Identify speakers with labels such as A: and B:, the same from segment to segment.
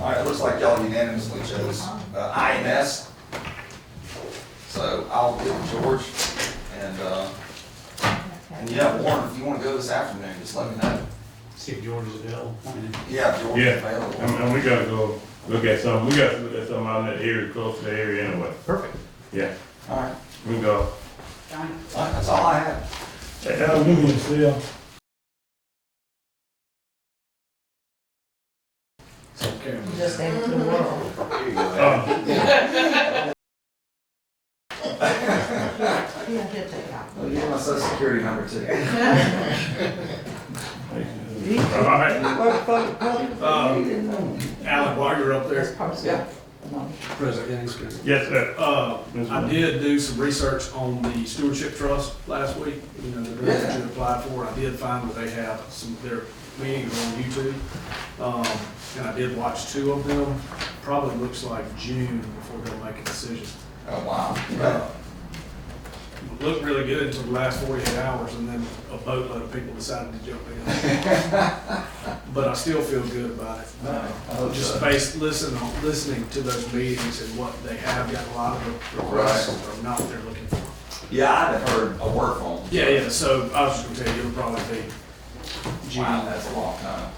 A: All right, it looks like y'all unanimously chose uh, IMS. So I'll get with George and, uh, and yeah, Warren, if you want to go this afternoon, just let me know.
B: See if George is available.
A: Yeah, if George is
C: Yeah, and,
A: available.
C: and we gotta go look at some, we gotta look at some out in that area, close to the area anyway.
B: Perfect.
C: Yeah,
A: All right,
C: we go.
A: all right, that's all I have.
C: Hey, Al, you can sell.
D: Just into
E: Mm-hmm.
D: the world.
A: Here you go, man.
C: Uh,
D: Yeah, he'll take out.
A: Well, you want my social security number too.
C: All right,
F: Alec, Um, while you're up there,
D: That's probably.
A: Yeah.
B: President Gaines.
C: yes, sir.
F: uh,
C: Yes, ma'am.
F: I did do some research on the stewardship trust last week, you know, the grant that you applied for, I did find that they have some, their meetings on YouTube. Um, and I did watch two of them, probably looks like June before they'll make a decision.
A: Oh, wow.
F: Uh, Looked really good until the last forty-eight hours, and then a boatload of people decided to jump in. But I still feel good about it. Uh,
A: Oh,
F: Just
A: good.
F: based, listen, on listening to those meetings and what they have, got a lot of requests or not they're looking for.
A: Yeah, I haven't heard a word from them.
F: Yeah, yeah, so I was just gonna tell you, it'll probably be June.
A: Wow, that's a long time.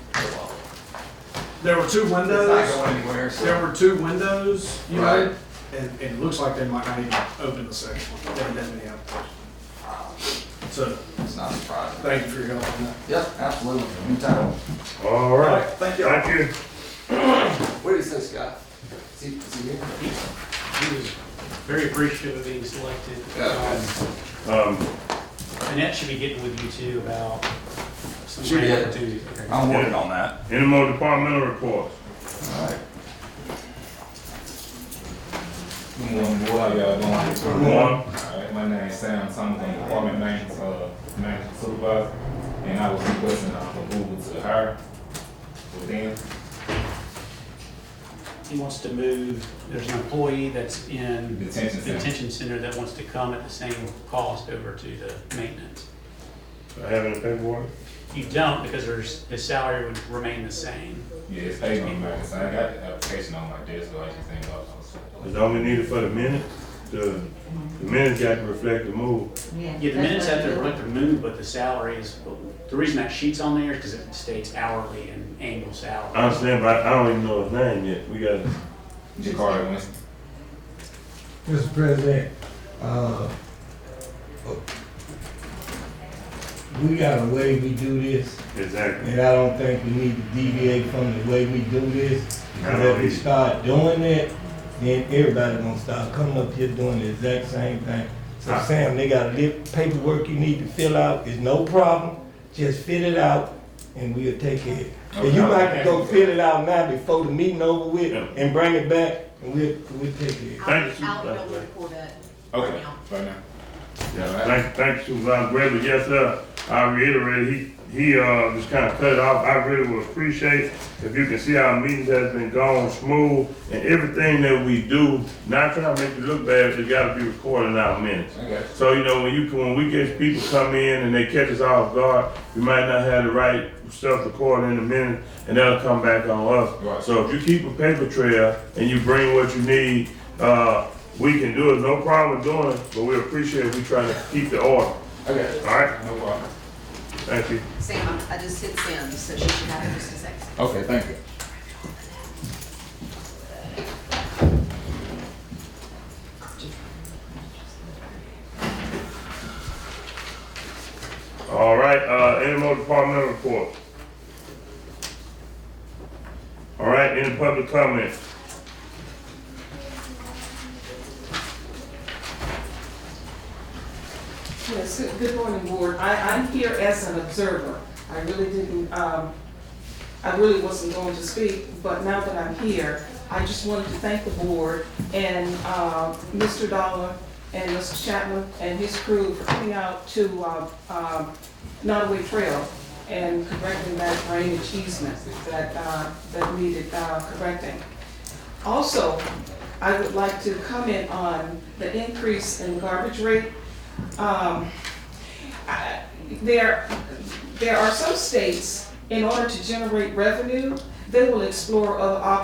F: There were two
A: It's not
F: windows,
A: going anywhere,
F: there
A: so.
F: were two windows, you
A: Right.
F: know, and, and it looks like they might not even open the second one, they haven't had many applications. So,
A: It's not surprising.
F: thank you for your help on that.
A: Yep, absolutely. Anytime.
C: All right,
A: Thank you.
C: thank you.
A: Where is this guy? Is he, is he here?
B: He was very appreciative of being selected.
A: Yeah.
B: Um,
C: Um,
B: Annette should be getting with you too about some
A: She
B: grant
A: did.
B: opportunities. Okay.
A: I'm working on that.
C: any more departmental reports?
A: All right.
G: Good morning, what are y'all doing?
C: Good morning.
G: Alright, my name is Sam Thomas, I'm department maintenance, uh, maintenance supervisor, and I was requesting a approval to hire for them.
B: He wants to move, there's an employee that's
G: Detention
B: in the
G: center.
B: detention center that wants to come at the same cost over to the maintenance.
C: Do I have any paperwork?
B: You don't because there's, his salary would remain the same.
G: Yeah, it's paid on maintenance, I got the application on my desk, so I just think I'll.
C: It's only needed for the minutes, the, the minutes got to reflect the move.
B: Yeah, the minutes have to reflect the move, but the salary is, the reason that sheet's on there is because it states hourly and annual salary.
C: I understand, but I don't even know his name yet, we gotta,
G: Jacari Winston.
H: Mr. President, uh, we got a way we do this,
C: exactly.
H: and I don't think we need to deviate from the way we do this.
C: I
H: And
C: don't
H: if we
C: either.
H: start doing that, then everybody gonna start coming up here doing the exact same thing. So
C: Ah.
H: Sam, they got a little paperwork you need to fill out, it's no problem, just fill it out, and we'll take care of it. And you
G: Okay.
H: might can go fill it out now before the meeting over with,
C: Yeah.
H: and bring it back, and we'll, we'll take care of it.
C: Thank you,
E: I'll, I'll,
C: Supervisor.
E: I'll report it.
G: Okay, right now.
C: Yeah, thank, thank Supervisor Gregory, yes, sir, I reiterate, he, he, uh, just kinda cut it off, I really would appreciate if you can see our meetings has been going smooth, and everything that we do, not trying to make you look bad, it gotta be recorded in our minutes.
G: Okay.
C: So, you know, when you, when we get people come in and they catch us off guard, we might not have the right stuff recorded in the minute, and that'll come back on us.
G: Right.
C: So if you keep a paper trail and you bring what you need, uh, we can do it, no problem doing it, but we appreciate we trying to keep the order,
G: Okay,
C: all right?
G: no problem.
C: Thank you.
E: Sam, I I just hit send, so she should have it just a second.
G: Okay, thank you.
C: All right, uh, any more departmental report? All right, any public comment?
I: Yes, good- good morning, Board. I, I'm here as an observer. I really didn't, um, I really wasn't going to speak, but now that I'm here, I just wanted to thank the Board and, uh, Mr. Dollar and Mr. Chapman and his crew for coming out to, uh, um, Nottaway Trail and correcting that drainage achievement that, uh, that needed, uh, correcting. Also, I would like to comment on the increase in garbage rate. Um, I- There, there are some states, in order to generate revenue, they will explore other options.